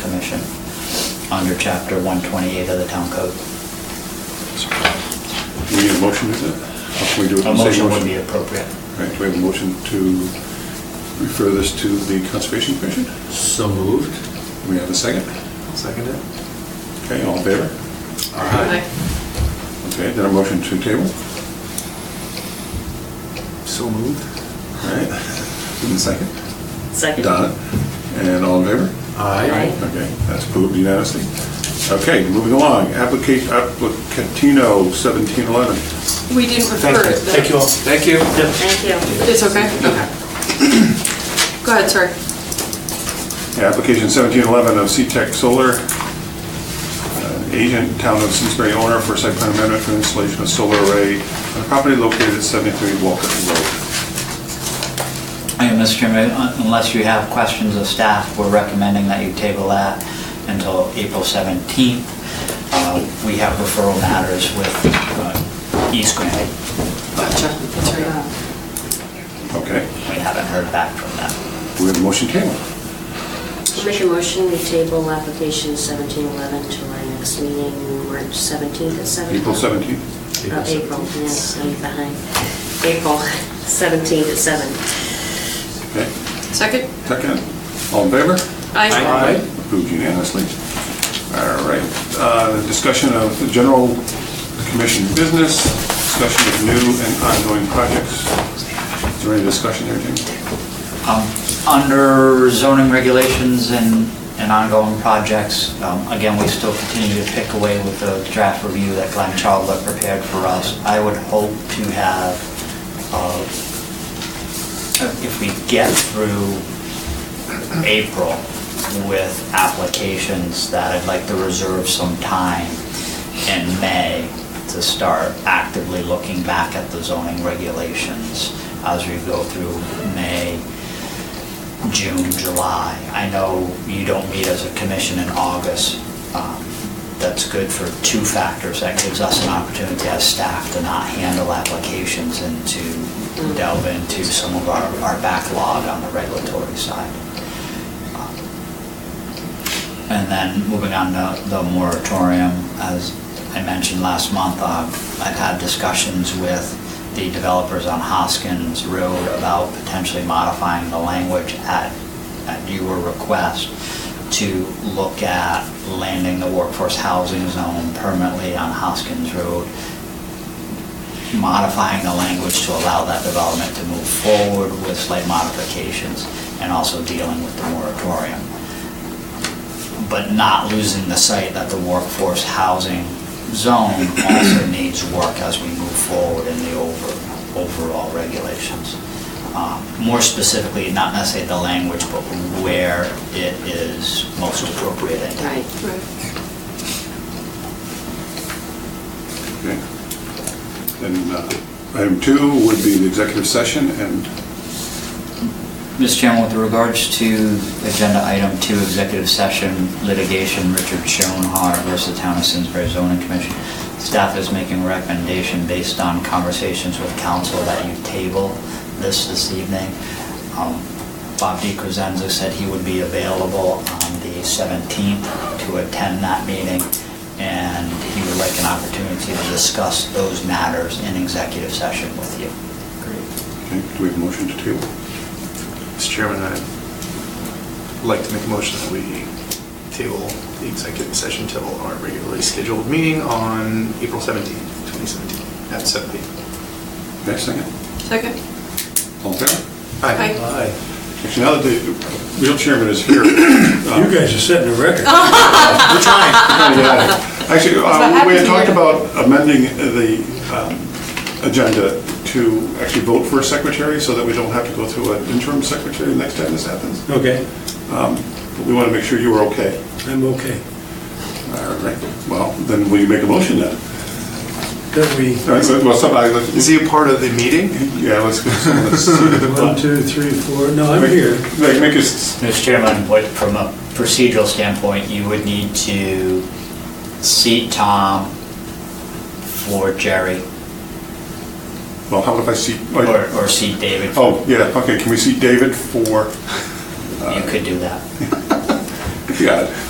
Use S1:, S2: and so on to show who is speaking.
S1: commission under Chapter 128 of the Town Code.
S2: We need a motion, is it? Or can we do it?
S1: A
S2: in the same
S1: motion would be appropriate.
S2: Right, do we have a motion to refer this to the Conservation Commission?
S3: So moved.
S2: Do we have a second?
S3: Second it.
S2: Okay, all in favor? Okay, then a motion to table,
S3: So moved.
S2: all right? And a second?
S4: Second.
S2: Donna, and all in favor?
S3: Aye.
S2: Okay, that's approved unanimously. Okay, moving along, application, applicantino 1711.
S5: We didn't refer it.
S3: Thank you all. Thank you.
S4: Thank you.
S5: It's okay? Okay. Go ahead, sorry.
S2: Yeah, Application 1711 of C-Tech Solar, uh, agent, town of Simsbury owner for site plan amendment for installation of solar array on a property located at 73 Walcott Road.
S1: Thank you, Mr. Chairman, Un- unless you have questions of staff, we're recommending that you table that until April 17th. Uh, We have referral matters with uh, East Granite.
S5: Gotcha. That's right.
S2: Okay,
S1: We haven't heard back from them.
S2: we have a motion table.
S4: Make a motion, we table application 1711 to our next meeting, March 17th at 7?
S2: April 17th.
S4: Oh, April, yes, I'm behind. April 17th at 7.
S2: Okay,
S5: Second?
S2: second, all in favor?
S5: Aye.
S2: Approved unanimously. All right, uh, discussion of the general commission business, discussion of new and ongoing projects. Is there any discussion there, Jamie?
S1: Um, Under zoning regulations and and ongoing projects, um, again, we still continue to pick away with the draft review that Glenn Charlotte prepared for us. I would hope to have uh, if we get through April with applications, that I'd like to reserve some time in May to start actively looking back at the zoning regulations as we go through May, June, July. I know you don't meet as a commission in August. Um, That's good for two factors. That gives us an opportunity as staff to not handle applications and to delve into some of our, our backlog on the regulatory side. And then moving on to the moratorium, as I mentioned last month, uh, I've had discussions with the developers on Hoskins Road about potentially modifying the language at, at your request to look at landing the workforce housing zone permanently on Hoskins Road modifying the language to allow that development to move forward with slight modifications and also dealing with the moratorium. But not losing the sight that the workforce housing zone also needs work as we move forward in the over, overall regulations. Um, More specifically, not necessarily the language, but where it is most appropriate and
S4: Right.
S5: Right.
S2: Okay. Then uh, item two would be the executive session, and
S1: Mr. Chairman, with regards to Agenda Item 2, Executive Session Litigation, Richard Schoenhardt versus Town of Simsbury Zoning Commission, staff is making a recommendation based on conversations with council that you table this this evening. Um, Bob DiCrescenzo said he would be available on the 17th to attend that meeting, and he would like an opportunity to discuss those matters in executive session with you.
S2: okay, do we have a motion to table?
S3: Mr. Chairman, I'd like to make a motion that we table the executive session till our regularly scheduled meeting on April 17th, 2017, at 7 p.m.
S2: Okay, second.
S5: Second?
S2: All in favor?
S5: Aye.
S3: Aye.
S2: Actually, now that the real chairman is here. uh,
S6: You guys are setting a record.
S3: We're trying.
S2: yeah. Actually, uh,
S5: That's what
S2: we had
S5: happens
S2: talked
S5: here.
S2: about amending the um, agenda to actually vote for a secretary so that we don't have to go through an interim secretary the next time this happens.
S6: Okay,
S2: But we want to make sure you were okay.
S6: I'm okay.
S2: All right, well, then will you make a motion then?
S6: That we,
S2: All right, well, somebody,
S3: Is he a part of the meeting?
S2: yeah, let's go. let's-
S6: one, two, three, four, no, I'm here.
S2: Make make us,
S1: Mr. Chairman, what, from a procedural standpoint, you would need to seat Tom for Jerry,
S2: well, how about if I seat, like-
S1: or, or seat David.
S2: oh, yeah, okay, can we seat David for,
S1: You could do that.
S2: yeah,